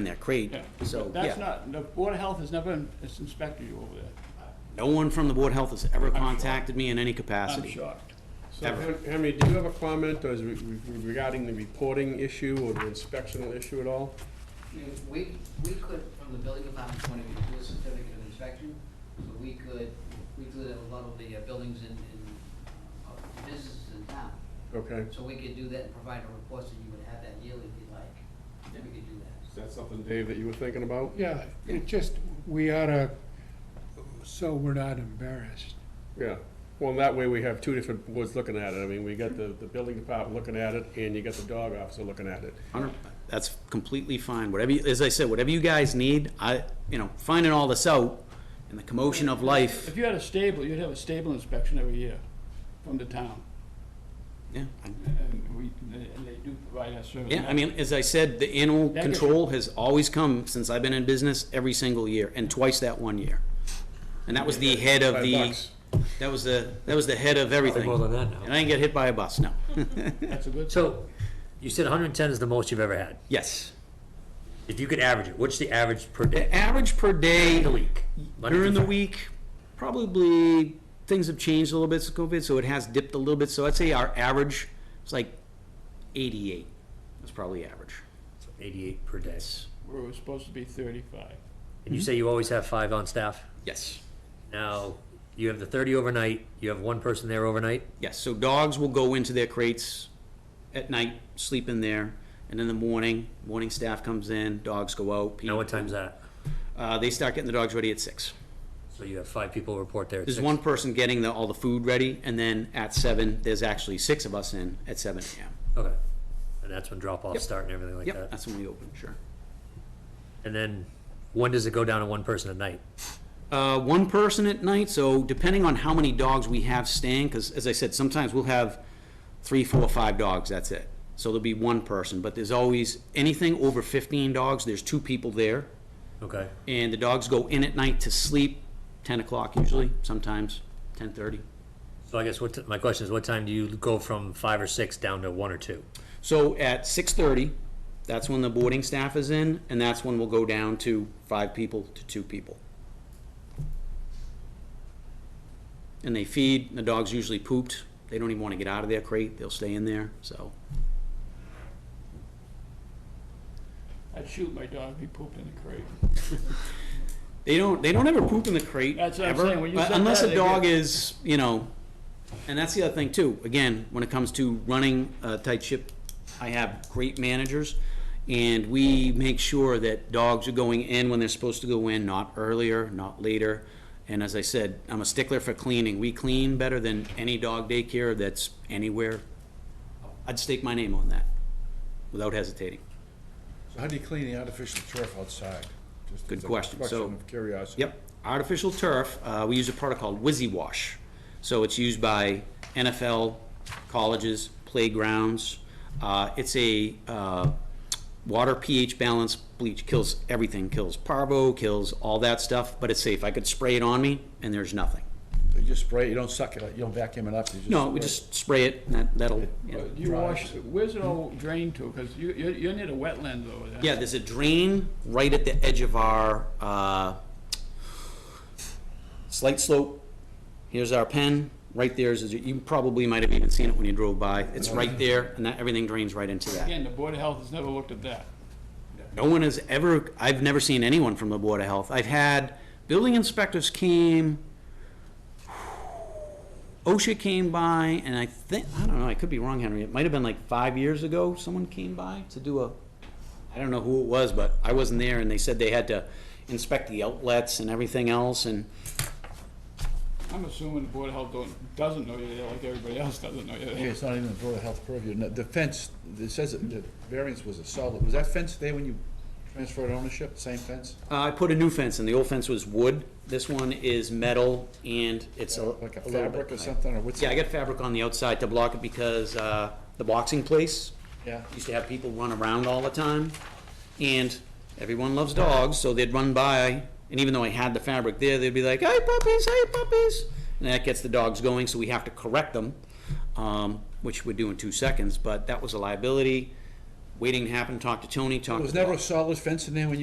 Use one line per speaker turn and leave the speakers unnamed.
in their crate,
Yeah,
so,
but that's
yeah.
not, the Board of Health has never in- has inspected you over there.
No one from the Board of Health has ever contacted me in any capacity.
I'm shocked.
So
Ever.
Hen- Henry, do you have a comment or is re- re- regarding the reporting issue or the inspectional issue at all?
You know, We, we could, from the building department's point of view, do a certificate of inspection, so we could, we do that with a lot of the uh, buildings in, in, uh, businesses in town.
Okay,
So we could do that and provide a report, so you would have that yearly if you'd like, we could do that.
is that something, Dave, that you were thinking about?
Yeah, it just, we oughta, so we're not embarrassed.
Yeah, well, that way we have two different boards looking at it. I mean, we got the, the building department looking at it and you got the dog officer looking at it.
Hundred- That's completely fine, whatever, you- as I said, whatever you guys need, I, you know, finding all this out in the commotion of life,
If you had a stable, you'd have a stable inspection every year from the town,
yeah. I-
and we, and they do provide that service.
Yeah, I mean, as I said, the animal
That gets-
control has always come since I've been in business, every single year, and twice that one year. And that was the head of
Five
the,
bucks.
that was the, that was the head of everything.
more than that now.
And I didn't get hit by a bus, no.
Hmm. That's a good.
So, you said 110 is the most you've ever had.
Yes.
If you could average it, what's the average per day,
The average per day
in a week? Monday
during the
through Friday.
week, probably, things have changed a little bit since COVID, so it has dipped a little bit. So I'd say our average is like eighty-eight, that's probably average.
88 per day.
We were supposed to be thirty-five.
And
Mm-hmm.
you say you always have five on staff?
Yes.
Now, you have the 30 overnight, you have one person there overnight?
Yes, so dogs will go into their crates at night, sleep in there, and in the morning, morning staff comes in, dogs go out.
Now,
people-
what time's that?
Uh, they start getting the dogs ready at six.
So you have five people report there at
There's
six?
one person getting the, all the food ready, and then at seven, there's actually six of us in at seven AM.
Okay. And that's when drop-offs start and everything like
Yep,
that?
that's when we open, sure.
And then, when does it go down to one person at night?
Uh, one person at night, so depending on how many dogs we have staying, because as I said, sometimes we'll have three, four, five dogs, that's it. So there'll be one person, but there's always, anything over fifteen dogs, there's two people there.
Okay.
and the dogs go in at night to sleep, ten o'clock usually, sometimes ten thirty.
So I guess what, t- my question is, what time do you go from five or six down to one or two?
So at six thirty, that's when the boarding staff is in, and that's when we'll go down to five people to two people. And they feed, the dog's usually pooped, they don't even wanna get out of their crate, they'll stay in there, so.
I'd shoot my dog if he pooped in the crate.
They don't, they don't ever poop in the crate,
That's what I'm
ever,
saying, when you
but
said
unless
that,
a
they
dog
get-
is, you know, and that's the other thing too, again, when it comes to running a tight ship, I have great managers, and we make sure that dogs are going in when they're supposed to go in, not earlier, not later. And as I said, I'm a stickler for cleaning, we clean better than any dog daycare that's anywhere. I'd stake my name on that, without hesitating.
So how do you clean the artificial turf outside? Just
Good
as a
question. So-
Question of curiosity.
Yep, artificial turf, uh, we use a product called WYSIWASH. So it's used by NFL, colleges, playgrounds. Uh, It's a uh, water pH balance bleach, kills everything, kills parvo, kills all that stuff, but it's safe. I could spray it on me and there's nothing.
You just spray, it, you don't suck it, you don't vacuum it up, you just.
No, we
spray it.
just spray it, and that- that'll, yeah.
But You wash, where's it all drained to? Because you, you're, you're near the wetlands over there.
Yeah, there's a drain right at the edge of our uh, slight slope. Here's our pen, right there is, you probably might have even seen it when you drove by. It's right there, and that, everything drains right into that.
Again, the Board of Health has never looked at that.
No one has ever, I've never seen anyone from the Board of Health. I've had, building inspectors came, OSHA came by, and I think, I don't know, I could be wrong, Henry, it might have been like five years ago, someone came by to do a, I don't know who it was, but I wasn't there, and they said they had to inspect the outlets and everything else, and
I'm assuming the Board of Health don't, doesn't know you're there like everybody else doesn't know you're
Okay,
there.
It's not even the Board of Health purview. No, The fence, it says that the variance was a solid, was that fence there when you transferred ownership, same fence?
uh, I put a new fence in. The old fence was wood. This one is metal, and it's a
Like a
little bit
fabric or
high.
something, or what's?
Yeah, I got fabric on the outside to block it because uh, the boxing place
Yeah.
used to have people run around all the time. And everyone loves dogs, so they'd run by, and even though I had the fabric there, they'd be like, hey puppies, hey puppies. And that gets the dogs going, so we have to correct them, um, which we do in two seconds, but that was a liability.
waiting to happen, talked to Tony, talked to.
There was never a solid fence in there when you